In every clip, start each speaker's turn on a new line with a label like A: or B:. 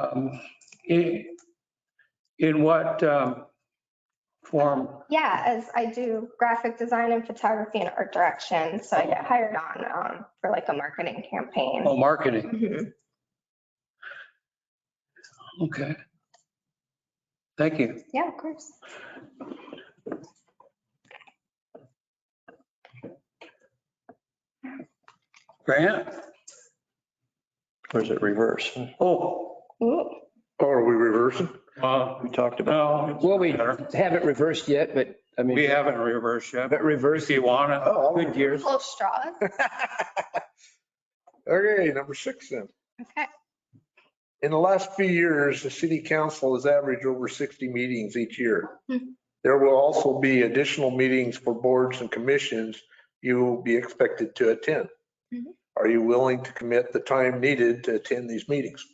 A: um, in, in what um, form?
B: Yeah, as I do graphic design and photography and art direction, so I get hired on um, for like a marketing campaign.
A: Oh, marketing,
B: Mhm.
A: okay. Thank you.
B: Yeah, of course.
A: Grant?
C: Or is it reverse?
A: Oh,
B: Ooh.
D: Oh, are we reversing?
A: uh,
C: We talked about.
A: no.
E: Well, we haven't reversed yet, but I mean.
A: We haven't reversed yet.
E: But
A: If
E: reversed,
A: you wanna,
D: Oh, I'll-
E: good years.
B: Full straws.
D: Okay, number six then.
B: Okay.
D: In the last few years, the city council has averaged over 60 meetings each year.
B: Hmm.
D: There will also be additional meetings for boards and commissions you will be expected to attend.
B: Mhm.
D: Are you willing to commit the time needed to attend these meetings?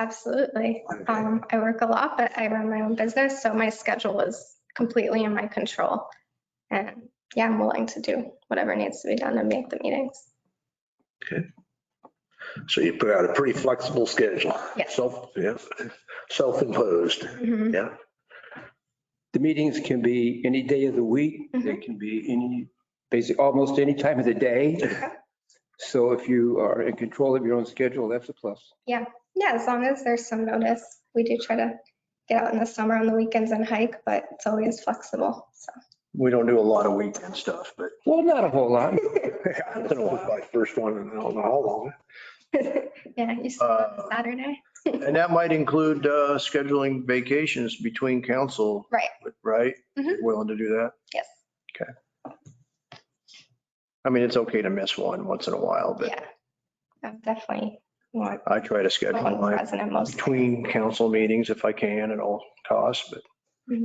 B: Absolutely.
D: Okay.
B: Um, I work a lot, but I run my own business, so my schedule is completely in my control. And yeah, I'm willing to do whatever needs to be done to make the meetings.
D: So you put out a pretty flexible schedule.
B: Yes.
D: Self, yeah, self-imposed.
B: Mhm.
E: The meetings can be any day of the week. They can be any, basically, almost any time of the day. So if you are in control of your own schedule, that's a plus.
B: Yeah, as long as there's some notice, we do try to get out in the summer on the weekends and hike, but it's always flexible, so.
C: We don't do a lot of weekend stuff, but
E: Well, not a whole lot.
D: I don't know, if my first one, and I don't know how long.
B: Yeah, you said
C: Uh,
B: Saturday?
C: And that might include uh, scheduling vacations between council,
B: Right,
C: right?
B: Mhm.
C: Willing to do that?
B: Yes.
C: Okay. I mean, it's okay to miss one once in a while, but
B: yeah. I'm definitely more
C: I try to schedule mine
B: present at most.
C: between council meetings if I can at all costs, but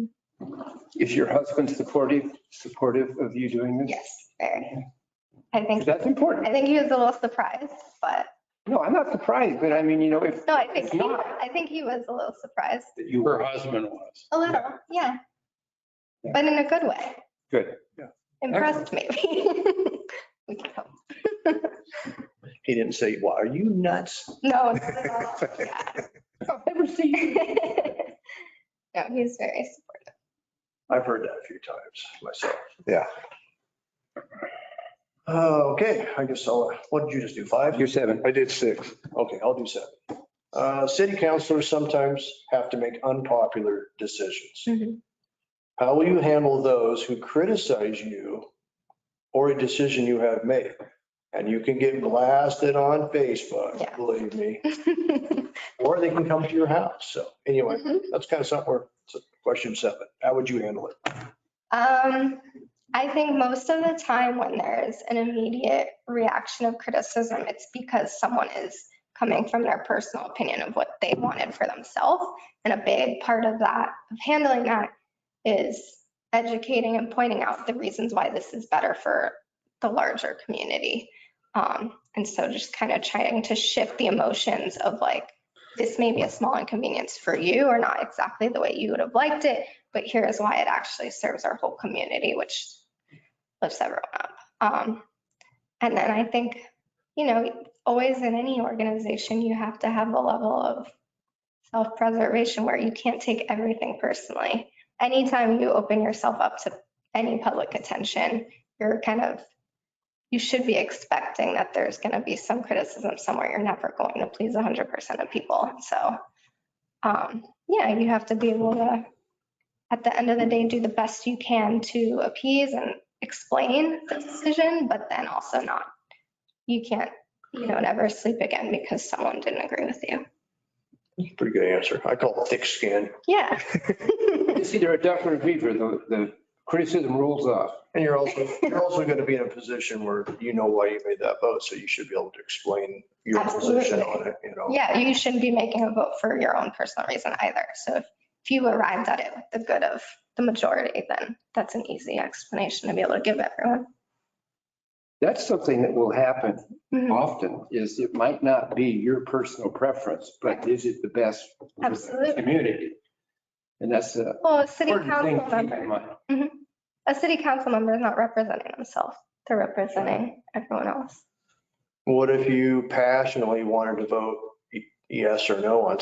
E: Is your husband supportive, supportive of you doing this?
B: Yes, very. I think,
E: That's
B: I
E: important.
B: think he was a little surprised, but,
E: No, I'm not surprised, but I mean, you know, if.
B: no, I think,
E: if
B: he-
E: not,
B: I think he was a little surprised,
E: that You
A: her
E: were,
A: husband was.
B: a little, yeah.
E: Yeah.
B: But in a good way.
E: Good,
C: yeah.
B: Impressed maybe. We can hope.
C: he didn't say, "Why are you nuts?"
B: No, not at all, yeah.
E: I've never seen you.
B: No, he's very supportive.
C: I've heard that a few times myself.
D: Yeah.
C: Uh, Okay, I guess I'll, uh, what did you just do, five?
E: You're seven.
D: I did six.
C: Okay, I'll do seven. Uh, City councilors sometimes have to make unpopular decisions. How will you handle those who criticize you or a decision you have made? And you can get blasted on Facebook,
B: Yeah.
C: believe me,
E: Mm-hmm.
C: or they can come to your house. So anyway,
B: Mhm.
C: that's kind of something where, so question seven, how would you handle it?
B: Um, I think most of the time when there's an immediate reaction of criticism, it's because someone is coming from their personal opinion of what they wanted for themselves. And a big part of that, of handling that, is educating and pointing out the reasons why this is better for the larger community. Um, and so just kind of trying to shift the emotions of like, this may be a small inconvenience for you or not exactly the way you would have liked it, but here is why it actually serves our whole community, which lifts everyone up. Um, and then I think, you know, always in any organization, you have to have a level of self-preservation where you can't take everything personally. Anytime you open yourself up to any public attention, you're kind of, you should be expecting that there's going to be some criticism somewhere. You're never going to please 100% of people. So, um, yeah, you have to be able to at the end of the day, do the best you can to appease and explain the decision, but then also not, you can't, you know, never sleep again because someone didn't agree with you.
C: Pretty good answer. I call it thick skin.
B: Yeah.
E: It's either a duck or a beaver. The, the criticism rules off.
C: And you're also, you're also going to be in a position where you know why you made that vote, so you should be able to explain your position
B: Absolutely.
C: on it, you know?
B: Yeah, you shouldn't be making a vote for your own personal reason either. So if if you arrived at it with the good of the majority, then that's an easy explanation to be able to give everyone.
E: That's something that will happen
B: Mhm.
E: often is it might not be your personal preference, but is it the best for the
B: Absolutely.
E: community? And that's uh, a
B: Well, a city
E: important thing
B: council
E: to keep
B: member.
E: in mind.
B: a city council member is not representing themselves. They're representing everyone else.
C: What if you passionately wanted to vote y- yes or no on